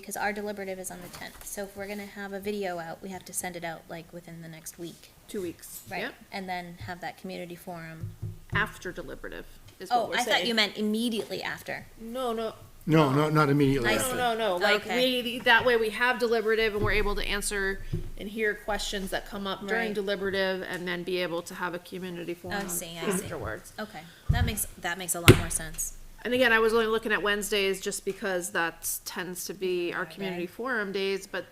because our deliberative is on the tenth. So if we're gonna have a video out, we have to send it out like within the next week. Two weeks. Right, Yep. and then have that community forum. After deliberative is Oh, what we're I saying. thought you meant immediately after. No, no, No, no, not immediately I after. see. no, no, no. Like Okay. we, that way we have deliberative and we're able to answer and hear questions that come up during Right. deliberative and then be able to have a community forum see, I see. afterwards. Okay, that makes, that makes a lot more sense. And again, I was only looking at Wednesdays just because that tends to be our community forum days, but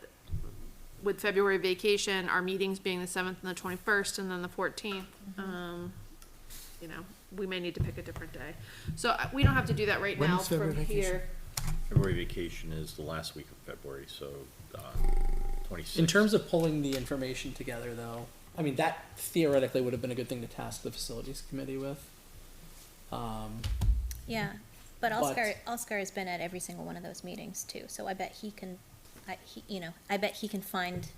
with February vacation, our meetings being the seventh and the twenty-first and then the fourteenth, um, you know, we may need to pick a different day. So uh, we don't have to do that right When now is February from vacation? here. February vacation is the last week of February, so uh, twenty-six. In terms of pulling the information together, though, I mean, that theoretically would have been a good thing to task the facilities committee with. Um, Yeah, but But- Oscar, Oscar has been at every single one of those meetings too, so I bet he can, I, he, you know, I bet he can find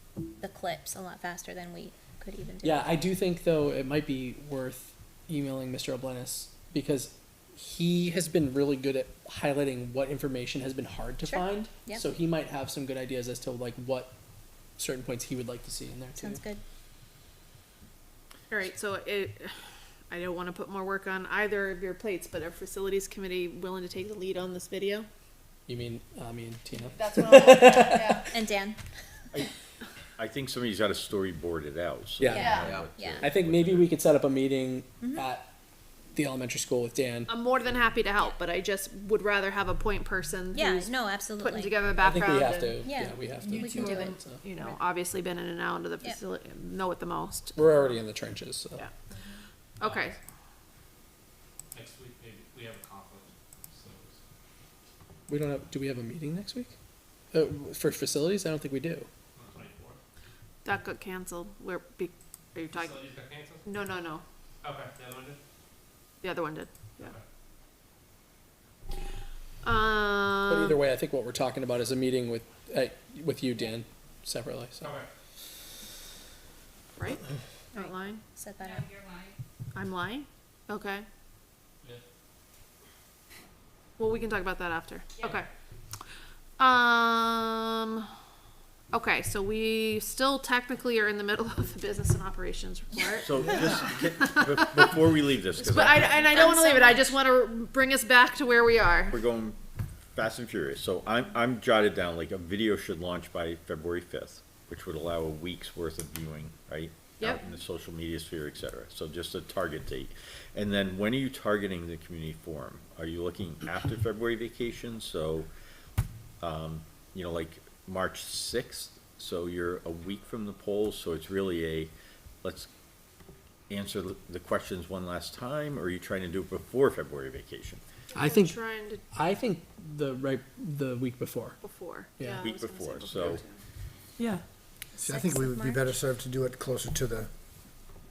the clips a lot faster than we could even do. yeah, I do think, though, it might be worth emailing Mr. Oblenis because he has been really good at highlighting what information has been hard to Sure. find. Yep. So he might have some good ideas as to like what certain points he would like to see in there too. Sounds good. All right, so it, I don't wanna put more work on either of your plates, but are facilities committee willing to take the lead on this video? You mean uh, me and Tina? That's what I'm, yeah. And Dan? I think somebody's got to storyboard it out. so Yeah. they Yeah. know what to- Yeah. I think maybe we could set up a meeting at the elementary school with Dan. I'm more than happy to help, but I just would rather have a point person Yeah, who's no, absolutely. putting together a I think background. we have to. and, Yeah. Yeah, we have to. We can do it. So. You know, obviously been in and out of the Yep. facility, know it the most. We're already in the trenches. So. Yeah. Okay, next week, maybe, we have a conflict, so it's. We don't have. Do we have a meeting next week? Uh, for facilities, I don't think we do. that got canceled. We're be, are you talking? Facilities got canceled? No, no, no. Okay, the other one did? The other one did. Yeah. Okay. But either Um, way, I think what we're talking about is a meeting with uh, with you, Dan, separately. So Okay. right? Not lying. Set that up. I'm lying? Okay. Yeah. Well, we can talk about that after. Okay. Um, okay, so we still technically are in the middle of the business and operations report. So just, get- be- before we leave this, But I, because and I don't wanna leave it, I just wanna bring us back to where we are. we're going fast and furious, so I'm, I'm jotted down, like, a video should launch by February fifth, which would allow a week's worth of viewing, right? Out Yep. in the social media sphere, et cetera, so just a target date. And then when are you targeting the community forum? Are you looking after February vacation, so, um, you know, like March sixth, so you're a week from the polls, so it's really a, let's answer the- the questions one last time, or are you trying to do it before February vacation? I think Trying to, I think the right the week before. before. Yeah. I Week was gonna say before, so- too. Yeah, See, I think Sixth we of would be March? better served to do it closer to the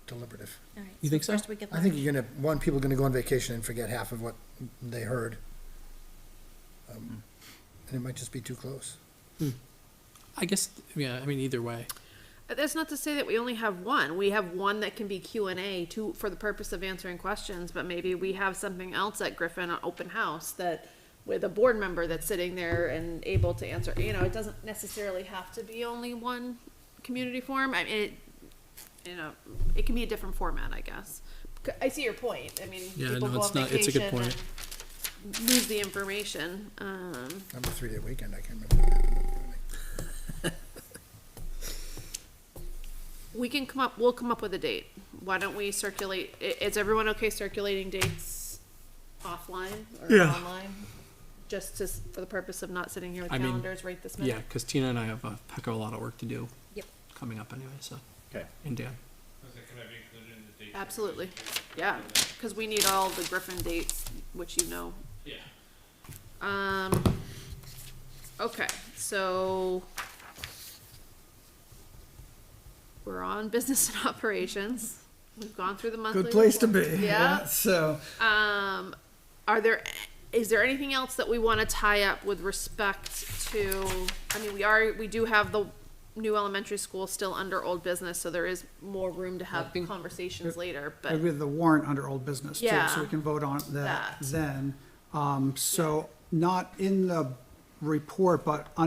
deliberative. All right, You think so? First week of I think March. you're gonna, one, people are gonna go on vacation and forget half of what they heard. Um, And it might just be too close. I guess. Yeah, I mean either way. But That's not to say that we only have one. We have one that can be Q and A to for the purpose of answering questions, but maybe we have something else at Griffin, an open house that with a board member that's sitting there and able to answer, you know, it doesn't necessarily have to be only one community forum. I mean, it, you know, it can be a different format, I guess. C- I see your point. I mean, Yeah, people no, go it's on not- it's a good vacation point. and lose the information. Um, I'm a three-day weekend, I can't remember. what happened on Friday. We can come up, we'll come up with a date. Why don't we circulate, i- is everyone okay circulating dates offline or online? Just to, s- for the purpose of not sitting here with I mean, calendars right this Yeah, minute? because Tina and I have a heck of a lot of work to do. Yep. Coming up anyway. So Okay. and Dan. Was it, can I be included in the date? Absolutely, yeah, cause we need all the Griffin dates, which you know. Yeah. Um, okay, so. We're on business and operations. We've gone through the monthly. Good place to be. report. Yeah. So, Um, are there, is there anything else that we want to tie up with respect to, I mean, we are, we do have the new elementary school still under old business, so there is more room to have think- conversations later, but, maybe the warrant under old business too, Yeah. so we can vote on That. that then. Um, so, not in the report, but